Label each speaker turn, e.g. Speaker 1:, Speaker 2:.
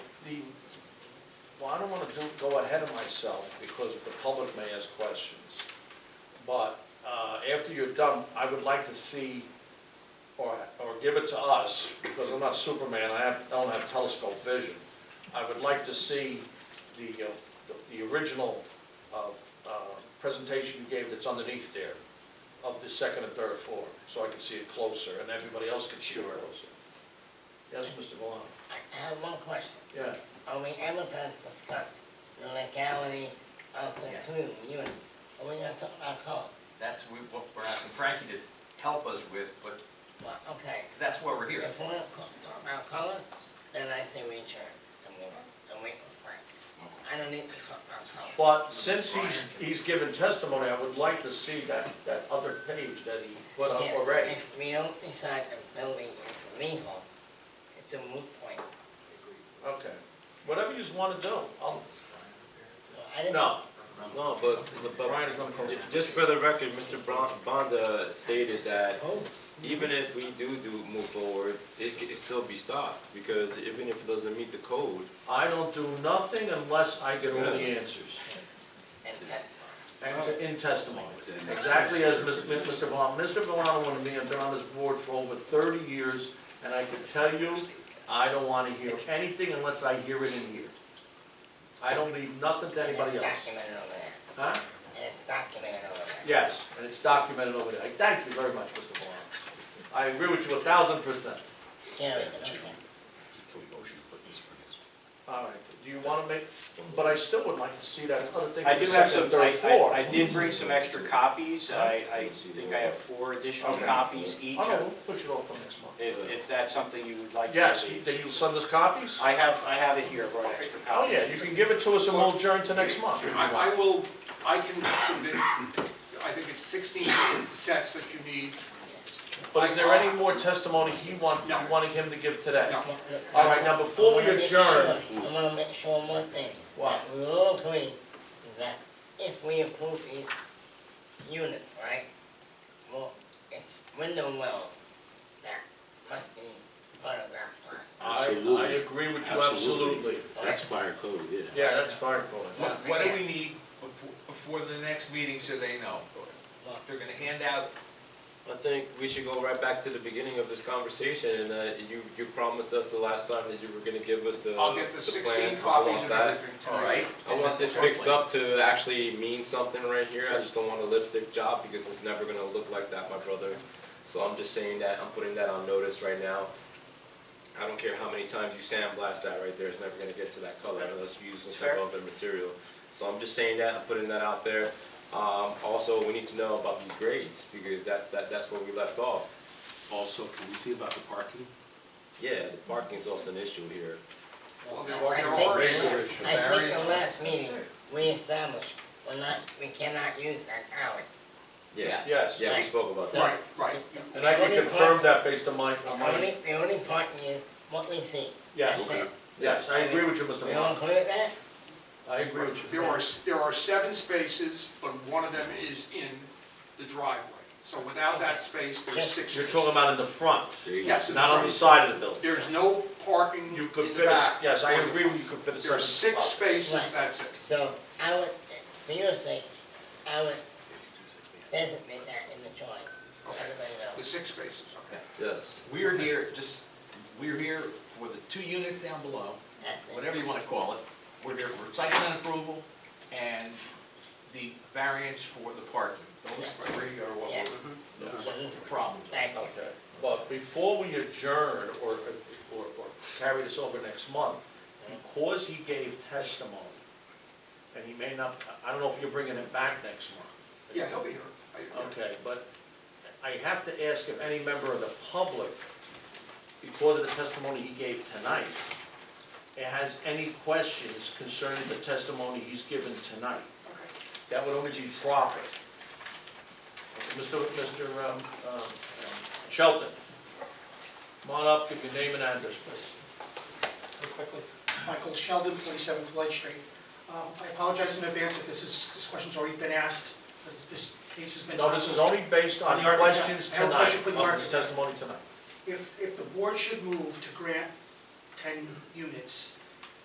Speaker 1: be, well, I don't wanna do, go ahead of myself, because the public may ask questions. But, uh, after you're done, I would like to see, or, or give it to us, because I'm not Superman, I have, I don't have telescope vision. I would like to see the, uh, the, the original, uh, uh, presentation you gave that's underneath there of the second and third floor, so I can see it closer, and everybody else can see it closer. Yes, Mr. Valano?
Speaker 2: I have one question.
Speaker 1: Yeah.
Speaker 2: Are we ever going to discuss the legality of the two units? Are we going to talk about code?
Speaker 3: That's we- what we're asking Frankie to help us with, but,
Speaker 2: Well, okay.
Speaker 3: because that's why we're here.
Speaker 2: If we're going to talk about code, then I say we adjourn the meeting and wait for Frank. I don't need to talk about code.
Speaker 1: But since he's, he's given testimony, I would like to see that, that other page that he put up
Speaker 2: Yeah,
Speaker 1: already.
Speaker 2: If we don't decide the building is legal, it's a moot point.
Speaker 1: Okay, whatever you want to do, I'll,
Speaker 2: Well, I didn't-
Speaker 1: no,
Speaker 4: No, but, but,
Speaker 1: Brian's gonna come.
Speaker 4: just for the record, Mr. Bron- Bonda stated that
Speaker 2: Oh,
Speaker 4: even if we do do move forward, it could still be stopped, because even if it doesn't meet the code,
Speaker 1: I don't do nothing unless I get all the answers.
Speaker 2: and testify.
Speaker 1: And to- in testimony, exactly as Mr. Mr. Valano, Mr. Valano wanted me, I've been on this board for over thirty years, and I can tell you, I don't want to hear anything unless I hear it in here. I don't leave nothing to anybody
Speaker 2: And
Speaker 1: else.
Speaker 2: it's documented over there.
Speaker 1: Huh?
Speaker 2: And it's documented over there.
Speaker 1: Yes, and it's documented over there. I Thank you very much, Mr. Valano. I agree with you a thousand percent.
Speaker 2: Scary, but okay.
Speaker 5: Can we motion to put this for next?
Speaker 1: All right, do you want to make, but I still would like to see that other thing.
Speaker 6: I do have some,
Speaker 1: Third
Speaker 6: I,
Speaker 1: floor.
Speaker 6: I- I did bring some extra copies, I, I think I have four additional
Speaker 1: Okay.
Speaker 6: copies
Speaker 1: Oh,
Speaker 6: each,
Speaker 1: no,
Speaker 6: of-
Speaker 1: we'll push it off till next month.
Speaker 6: if, if that's something you would like. to
Speaker 1: Yes,
Speaker 6: leave.
Speaker 1: then you'll send us copies?
Speaker 6: I have, I have it here, I brought extra
Speaker 1: Oh,
Speaker 6: copies.
Speaker 1: yeah, you can give it to us and we'll adjourn to next month.
Speaker 7: I, I will, I can submit, I think it's sixteen sets that you need.
Speaker 1: But is there any more testimony he want, you wanted him to give today?
Speaker 7: No.
Speaker 1: All right, now before we
Speaker 2: I wanna make
Speaker 1: adjourn,
Speaker 2: sure- I wanna make sure one thing.
Speaker 1: What?
Speaker 2: that We all agree that if we approve these units, right? Well, it's window wells that must be part of that plan.
Speaker 1: I, I
Speaker 4: Absolutely.
Speaker 1: agree with you absolutely.
Speaker 4: that's fire code, yeah.
Speaker 1: Yeah, that's fire code.
Speaker 3: What what do we need befo- before the next meeting so they know? They're gonna hand out,
Speaker 4: I think we should go right back to the beginning of this conversation, and, uh, you, you promised us the last time that you were gonna give us the.
Speaker 7: I'll get the sixteen
Speaker 4: plans. I
Speaker 7: copies
Speaker 4: want
Speaker 7: and
Speaker 4: that.
Speaker 7: everything
Speaker 3: all
Speaker 7: tonight.
Speaker 3: right?
Speaker 4: I want this fixed up to actually mean something right here, I just don't want a lipstick job because it's never gonna look like that, my brother. So I'm just saying that, I'm putting that on notice right now. I don't care how many times you sandblast that right there, it's never gonna get to that color unless you use some type of other material. So I'm just saying that, I'm putting that out there. Um, also, we need to know about these grades because that, that, that's where we left off.
Speaker 5: Also, can we see about the parking?
Speaker 4: Yeah, the parking's also an issue here.
Speaker 7: Well,
Speaker 2: I
Speaker 7: there-
Speaker 2: think,
Speaker 7: there are-
Speaker 2: I think the last meeting, we established, we're not, we cannot use that alley.
Speaker 4: Yeah,
Speaker 1: Yes,
Speaker 4: yeah, we spoke about that.
Speaker 7: Right, right.
Speaker 1: and I can
Speaker 2: The only
Speaker 1: confirm
Speaker 2: part-
Speaker 1: that based on my, on
Speaker 2: The
Speaker 1: my,
Speaker 2: only, the only part is what we see.
Speaker 1: yes,
Speaker 2: That's it.
Speaker 1: yes, I agree with you, Mr.
Speaker 2: We all
Speaker 1: Valano.
Speaker 2: agree with that?
Speaker 1: I agree with you.
Speaker 7: There are, s- there are seven spaces, but one of them is in the driveway. So without that space, there's six.
Speaker 1: You're talking about in the front,
Speaker 7: Yes, in the
Speaker 1: not on the
Speaker 7: front.
Speaker 1: side of the building.
Speaker 7: There's no parking in
Speaker 1: You could
Speaker 7: the
Speaker 1: fit, a s-
Speaker 7: back.
Speaker 1: yes, I
Speaker 7: or the
Speaker 1: agree
Speaker 7: front.
Speaker 1: with you could fit a
Speaker 7: There are
Speaker 1: second
Speaker 7: six
Speaker 1: spot.
Speaker 7: spaces,
Speaker 2: Right.
Speaker 7: that's it.
Speaker 2: So I would, for your sake, I would designate that in the joint, so everybody
Speaker 7: The
Speaker 2: knows.
Speaker 7: six spaces, okay.
Speaker 4: Yes.
Speaker 3: We're here, just, we're here for the two units down below,
Speaker 2: That's it.
Speaker 3: whatever you wanna call it. We're here for site plan approval and the variance for the parking. Those three are what
Speaker 2: Yes.
Speaker 3: we're,
Speaker 2: Yes.
Speaker 3: problems.
Speaker 2: Thank you.
Speaker 1: Okay, but before we adjourn or, or, or carry this over next month, because he gave testimony, and he may not, I don't know if you're bringing it back next month.
Speaker 7: Yeah, he'll be here. I-
Speaker 1: Okay, but I have to ask if any member of the public, because of the testimony he gave tonight, has any questions concerning the testimony he's given tonight.
Speaker 7: Okay.
Speaker 1: That would only be proper. Mr. Mr. um, um, Shelton, come on up, give your name and address, please.
Speaker 8: real quickly. Michael Sheldon, 47th Light Street. Um, I apologize in advance if this is, this question's already been asked, but this- this case has been...
Speaker 1: No, this is only based on
Speaker 8: The architect-
Speaker 1: questions
Speaker 8: I have a
Speaker 1: tonight,
Speaker 8: question for the
Speaker 1: of his
Speaker 8: architect.
Speaker 1: testimony tonight.
Speaker 8: If, if the board should move to grant 10 units,